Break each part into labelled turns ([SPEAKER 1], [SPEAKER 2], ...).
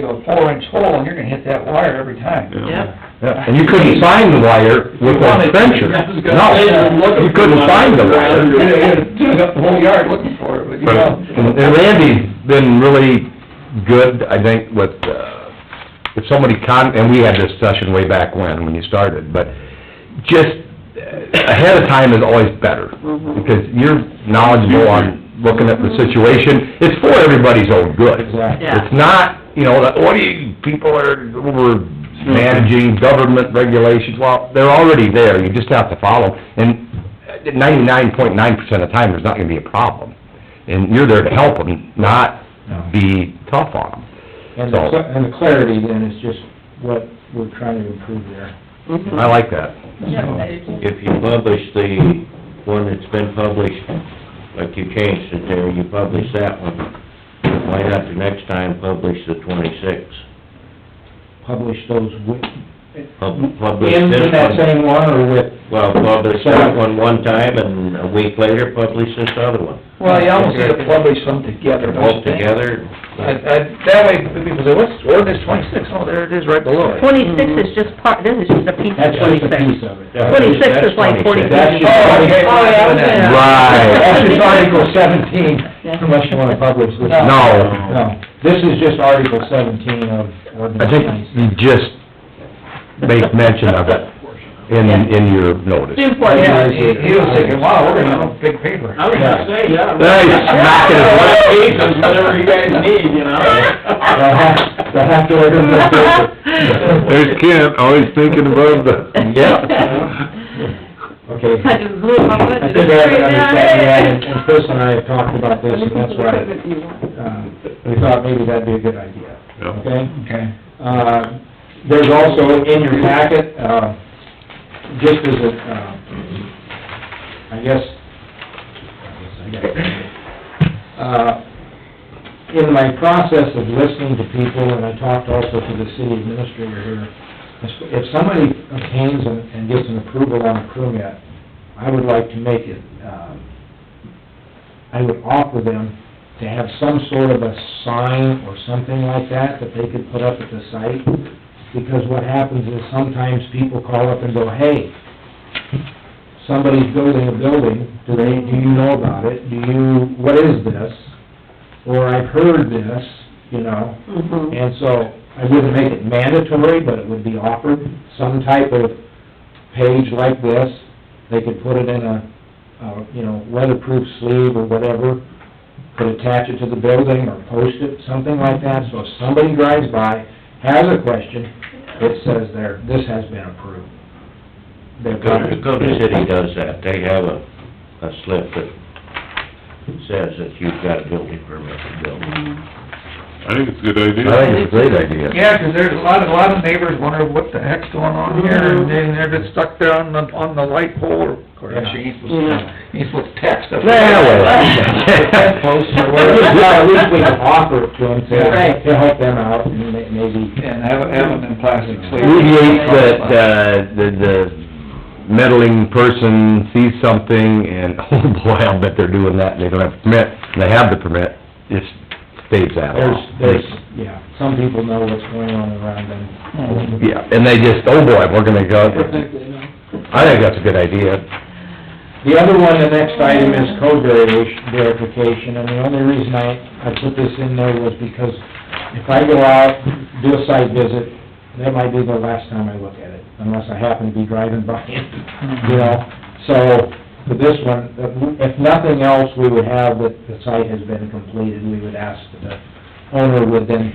[SPEAKER 1] you know, four inch hole and you're gonna hit that wire every time.
[SPEAKER 2] Yeah.
[SPEAKER 3] Yeah, and you couldn't find the wire with a trencher. No, you couldn't find the
[SPEAKER 1] You're gonna, you're
[SPEAKER 3] wire.
[SPEAKER 1] gonna tune up the whole yard looking for it, but you know.
[SPEAKER 3] And Randy's been really good, I think, with, uh, if somebody con, and we had this session way back when, when you started, but just uh, ahead of time is always better,
[SPEAKER 1] Mm-hmm.
[SPEAKER 3] because you're knowledgeable on looking at the situation. It's for everybody's own good.
[SPEAKER 1] Exactly.
[SPEAKER 2] Yeah.
[SPEAKER 3] It's not, you know, that, what do you, people are, over
[SPEAKER 1] Mm-hmm.
[SPEAKER 3] managing government regulations, well, they're already there, you just have to follow. And ninety-nine point nine percent of the time, there's not gonna be a problem. And you're there to help them, not be tough on them.
[SPEAKER 4] And the, cl- and the clarity then is just what we're trying to improve there.
[SPEAKER 3] I like that.
[SPEAKER 5] If you publish the one that's been published, like you changed it there, you publish that one, why not the next time publish the twenty-six?
[SPEAKER 4] Publish those with,
[SPEAKER 5] Pub- Publish
[SPEAKER 4] in
[SPEAKER 5] this
[SPEAKER 4] in that
[SPEAKER 5] one,
[SPEAKER 4] same one or with,
[SPEAKER 5] well, publish that one one time, and a week later, publish this other one.
[SPEAKER 1] Well, you almost gotta publish them together,
[SPEAKER 5] They're
[SPEAKER 1] don't you
[SPEAKER 5] both
[SPEAKER 1] think?
[SPEAKER 5] together,
[SPEAKER 1] I, I, that way, people say, what's, ordinance twenty-six? Oh, there it is, right below it.
[SPEAKER 2] Twenty-six is just part, this is just a piece of
[SPEAKER 4] that's just a piece
[SPEAKER 2] twenty-six.
[SPEAKER 4] of it.
[SPEAKER 5] Yeah.
[SPEAKER 2] Twenty-six is like
[SPEAKER 5] That's
[SPEAKER 2] forty-six.
[SPEAKER 5] 26.
[SPEAKER 4] That's just-
[SPEAKER 1] Oh, okay, well, yeah, I was gonna-
[SPEAKER 3] Right.
[SPEAKER 4] That's just Article seventeen, unless you wanna publish this.
[SPEAKER 3] No,
[SPEAKER 4] Oh. No, this is just Article seventeen of
[SPEAKER 3] I
[SPEAKER 4] ordinance
[SPEAKER 3] think
[SPEAKER 4] twenty-six.
[SPEAKER 3] you just make mention of it in, in your notice.
[SPEAKER 2] It's important.
[SPEAKER 1] Yeah, he, he was thinking, wow, we're gonna have a big paper.
[SPEAKER 4] was gonna say, yeah.
[SPEAKER 3] Nice, knock it away.
[SPEAKER 4] whatever you guys need, you know? They'll have, they'll have to order them this paper.
[SPEAKER 3] There's Kent, always thinking above the...
[SPEAKER 4] Okay.
[SPEAKER 2] I just blew my budget.
[SPEAKER 4] I think I have an understanding, of that, and- and Chris and I have talked about this, and that's why, um, we thought maybe that'd be a good idea, okay?
[SPEAKER 1] Okay.
[SPEAKER 4] Uh, there's also in your packet, uh, just as a, uh, I guess, I guess I got it. Uh, in my process of listening to people, and I talked also to the city administrator here, if- if somebody obtains and and gets an approval on a permit, I would like to make it, um, I would offer them to have some sort of a sign or something like that that they could put up at the site. Because what happens is sometimes people call up and go, hey, somebody's building a building, do they, do you know about it? Do you, what is this? Or I've heard this, you know?
[SPEAKER 2] Mm-hmm.
[SPEAKER 4] And so, I wouldn't make it mandatory, but it would be offered, some type of page like this. They could put it in a, uh, you know, weatherproof sleeve or whatever, could attach it to the building or post it, something like that. So if somebody drives by, has a question, it says there, this has been approved. They've got it.
[SPEAKER 5] Dakota City does that, they have a, a slip that says that you've got a building permit to build.
[SPEAKER 6] I think it's a good idea.
[SPEAKER 3] I think it's a great idea.
[SPEAKER 1] Yeah, 'cause there's a lot, a lot of neighbors wonder what the heck's going on here, and then they're just stuck there on the, on the light pole, of course, you ain't supposed to, you ain't supposed to text them.
[SPEAKER 3] Well, well.
[SPEAKER 4] Well, at least we can offer it to them to, to help them out and may- maybe.
[SPEAKER 1] And have, have them in plastic sleeves.
[SPEAKER 3] Alleviates that, uh, the, the meddling person sees something and, oh boy, I'll bet they're doing that, and they don't have a permit, and they have the permit, just staves that
[SPEAKER 4] There's,
[SPEAKER 3] off.
[SPEAKER 4] there's, yeah, some people know what's going on around them.
[SPEAKER 3] Yeah, and they just, oh boy, we're gonna go, I think that's a good idea.
[SPEAKER 4] The other one, the next item is code variation, verification, and the only reason I, I put this in there was because if I go out, do a site visit, that might be the last time I look at it, unless I happen to be driving by it, you know? So, for this one, if nothing else, we would have that the site has been completed, we would ask that the owner would then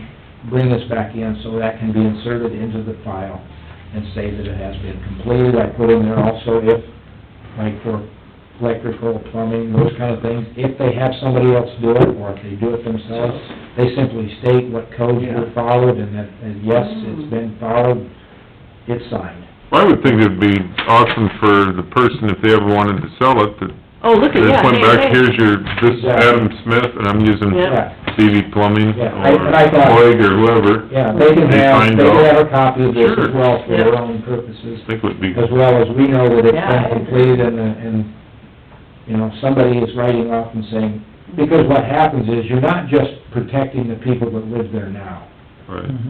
[SPEAKER 4] bring this back in, so that can be inserted into the file and say that it has been completed. I put in there also if, like for electrical, plumbing, those kind of things. If they have somebody else do it, or if they do it themselves, they simply state what codes were followed, and that, and yes, it's been followed, it's signed.
[SPEAKER 6] I would think it'd be awesome for the person, if they ever wanted to sell it, that
[SPEAKER 2] Oh, look at,
[SPEAKER 6] they
[SPEAKER 2] yeah,
[SPEAKER 6] went
[SPEAKER 2] hey,
[SPEAKER 6] back,
[SPEAKER 2] hey.
[SPEAKER 6] here's your, this is Adam Smith, and I'm using
[SPEAKER 2] Yeah.
[SPEAKER 6] CV Plumbing,
[SPEAKER 4] Yeah, I-
[SPEAKER 6] or
[SPEAKER 4] and I thought-
[SPEAKER 6] Boyd, or whoever.
[SPEAKER 4] Yeah, they can
[SPEAKER 6] They
[SPEAKER 4] have,
[SPEAKER 6] find
[SPEAKER 4] they can
[SPEAKER 6] out.
[SPEAKER 4] have a copy of this as
[SPEAKER 6] Sure.
[SPEAKER 4] well for
[SPEAKER 2] Yeah.
[SPEAKER 4] their own purposes,
[SPEAKER 6] I think would be,
[SPEAKER 4] as well as we know that it's
[SPEAKER 2] Yeah.
[SPEAKER 4] been completed and, uh, and, you know, somebody is writing off and saying, because what happens is, you're not just protecting the people that live there now.
[SPEAKER 6] right.